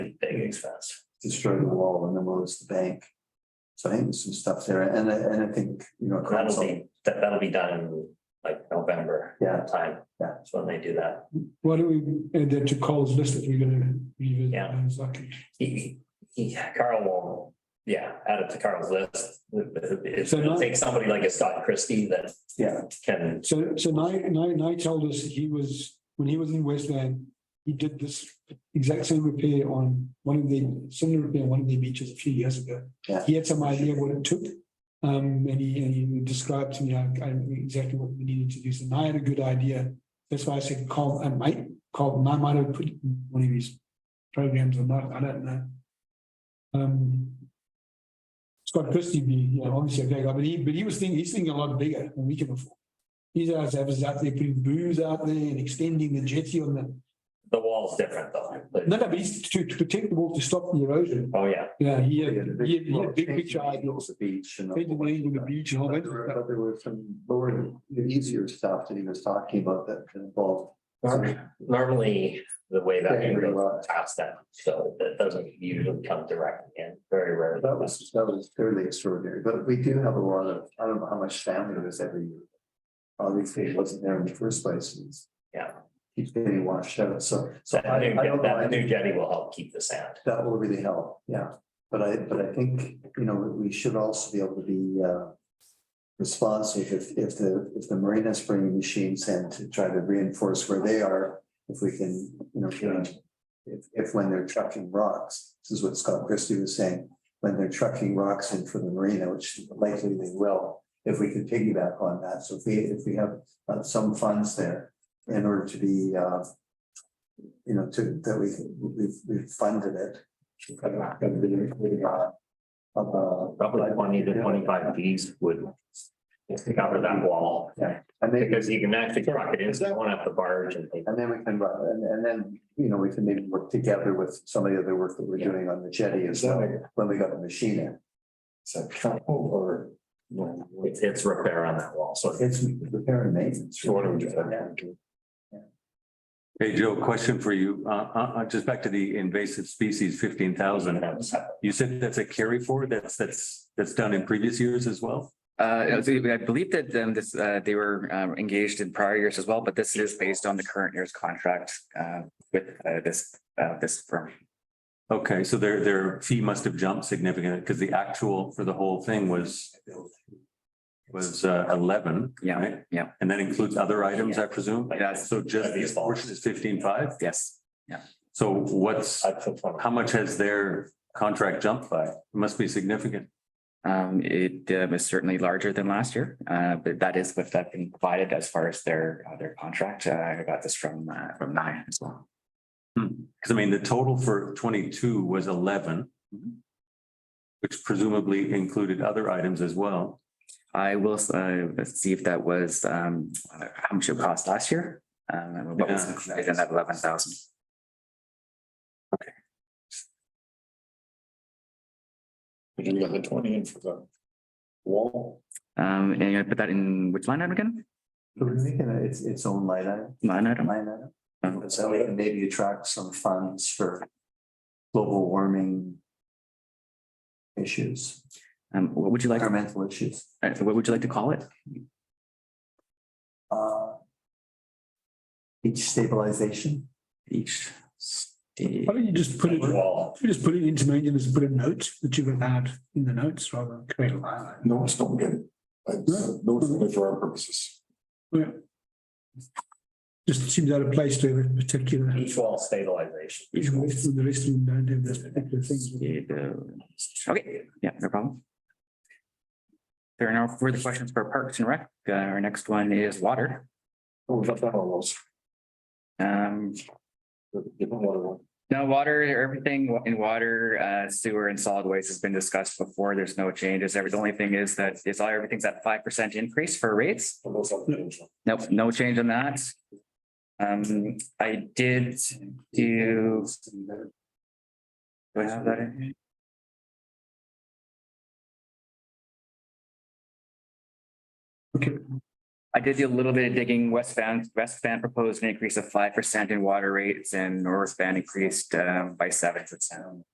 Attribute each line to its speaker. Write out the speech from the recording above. Speaker 1: Pigs Fest, destroy the wall and then what was the bank? So I think there's some stuff there and I, and I think, you know.
Speaker 2: That'll
Speaker 1: council-
Speaker 2: be, that, that'll be done in like November
Speaker 1: Yeah,
Speaker 2: time.
Speaker 1: Yeah.
Speaker 2: That's when they do that.
Speaker 3: Why don't we add that to Cole's list if we're gonna revisit
Speaker 2: Yeah.
Speaker 3: that in a second?
Speaker 2: He, he, Carl will, yeah, add it to Carl's list. It's
Speaker 3: So
Speaker 2: gonna
Speaker 3: not-
Speaker 2: take somebody like a Scott Christie that
Speaker 1: yeah,
Speaker 2: can,
Speaker 3: So, so Nye, Nye, Nye told us he was, when he was in Westland, he did this exact same repair on one of the, similar repair on one of the beaches a few years ago.
Speaker 1: Yeah.
Speaker 3: He had some idea what it took, um, and he, and he described to me how- I knew exactly what we needed to do, so Nye had a good idea. That's why I said, Carl, I might, Carl, Nye might have put one of his programs or not, I don't know. Um, Scott Christie, be, you know, obviously a great guy, but he, but he was thinking, he's thinking a lot bigger than we can afford. These guys have us out there putting booze out there and extending the jetty on the,
Speaker 2: the wall's different though.
Speaker 3: no, no, but it's to, to protect the wall to stop the erosion.
Speaker 2: Oh, yeah.
Speaker 3: Yeah, he had,
Speaker 1: Yeah, the
Speaker 3: he had, he had a big
Speaker 1: change
Speaker 3: picture
Speaker 1: of
Speaker 3: idea.
Speaker 1: angles, The beach and. the
Speaker 3: Painted
Speaker 1: whole-
Speaker 3: land on the beach and all
Speaker 1: But
Speaker 3: that.
Speaker 1: there were- but there were some lower, easier stuff that he was talking about that involved.
Speaker 2: Nor- Normally, the way that
Speaker 1: Yeah,
Speaker 2: it
Speaker 1: pretty
Speaker 2: goes
Speaker 1: well.
Speaker 2: past that, so that doesn't usually come directly in, very rarely.
Speaker 1: That was, that was fairly extraordinary, but we do have a lot of, I don't know how much family there's every year. Obviously, it wasn't there in the first place. It's-
Speaker 2: Yeah.
Speaker 1: Keeps getting washed out, so, so I,
Speaker 2: That new,
Speaker 1: I don't know, I
Speaker 2: that new
Speaker 1: think
Speaker 2: jetty will help keep the sand.
Speaker 1: that will really help, yeah. But I, but I think, you know, we should also be able to be, uh. Responsive if, if the, if the marinas bring machines in to try to reinforce where they are, if we can, you know, if- if, if when they're trucking rocks, this is what Scott Christie was saying, when they're trucking rocks in from the marina, which likely they will, if we could piggyback on that. So if we, if we have uh, some funds there in order to be, uh, you know, to, that we, we've, we've funded it. Uh,
Speaker 2: Probably twenty to twenty-five Gs would cover that wall.
Speaker 1: And maybe,
Speaker 2: Because you can actually truck it in, so you won't have to barge and things.
Speaker 1: and then we can, run- and, and then, you know, we can maybe work together with some of the other work that we're
Speaker 2: Yeah.
Speaker 1: doing on the jetty as well, when we got the machine in. So, or,
Speaker 2: Well, It's, it's repair on that wall, so.
Speaker 1: it's repair and maintenance.
Speaker 2: So what do we do?
Speaker 4: Hey, Joe, question for you. Uh, uh, uh, just back to the invasive species fifteen thousand. You said that's a carry forward? That's, that's, that's done in previous years as well?
Speaker 5: Uh, so I believe that um this, uh, they were um, engaged in prior years as well, but this is based on the current year's contract, uh, with, uh, this, uh, this firm.
Speaker 4: Okay, so their, their fee must have jumped significantly because the actual for the whole thing was was uh, eleven.
Speaker 5: Yeah,
Speaker 4: right?
Speaker 5: yeah.
Speaker 4: And that includes other items, I presume?
Speaker 5: Yes.
Speaker 4: So just this portion is fifteen-five?
Speaker 5: Yes,
Speaker 4: So what's,
Speaker 2: I put one-
Speaker 4: how much has their contract jumped by? It Must be significant.
Speaker 5: um, it uh, was certainly larger than last year, uh, but that is what I've been provided as far as their, uh, their contract. Uh, I got this from, uh, from Nye as well.
Speaker 4: Because I mean, the total for twenty-two was eleven. Which presumably included other items as well.
Speaker 5: I will, uh, see if that was, um, how much it cost last year. Um, and what was
Speaker 4: Yeah.
Speaker 5: included in that eleven thousand.
Speaker 6: You got the twenty in for the wall.
Speaker 5: Um, and I put that in which line item again?
Speaker 1: So we're making it its, its own light item,
Speaker 5: Line item?
Speaker 1: line item. So we can maybe attract some funds for global warming issues,
Speaker 5: Um, what would you like, uh,
Speaker 1: environmental issues.
Speaker 5: what would you like to call it?
Speaker 1: Uh, Beach stabilization.
Speaker 5: Each state.
Speaker 3: Why don't you just put it,
Speaker 2: Wall.
Speaker 3: you just put it into maintenance, and put a note that you've allowed in the notes rather than create a line. item.
Speaker 6: Notes don't get it. Like, Notes are only for our purposes.
Speaker 3: Oh, Yeah. Just seems out of place to have a particular,
Speaker 2: Each wall stabilization.
Speaker 3: each one, the rest of them don't have those particular things.
Speaker 5: state, uh, Okay, yeah, no problem. There are no further questions for Parks and Rec. Uh, Our next one is water.
Speaker 6: Oh, We've got that on those.
Speaker 5: Um,
Speaker 6: Different water one.
Speaker 5: No, water, everything wa- in water, uh, sewer and solid waste has been discussed before. There's no changes. Every- The only thing is that it's all, everything's at five percent increase for rates.
Speaker 6: For those on the engine.
Speaker 5: Nope, no change on that. Um, I did do. Do I have that in? here?
Speaker 3: Okay.
Speaker 5: I did do a little bit of digging. West Van, West Van proposed an increase of five percent in water rates and North Van increased um by uh, seven percent.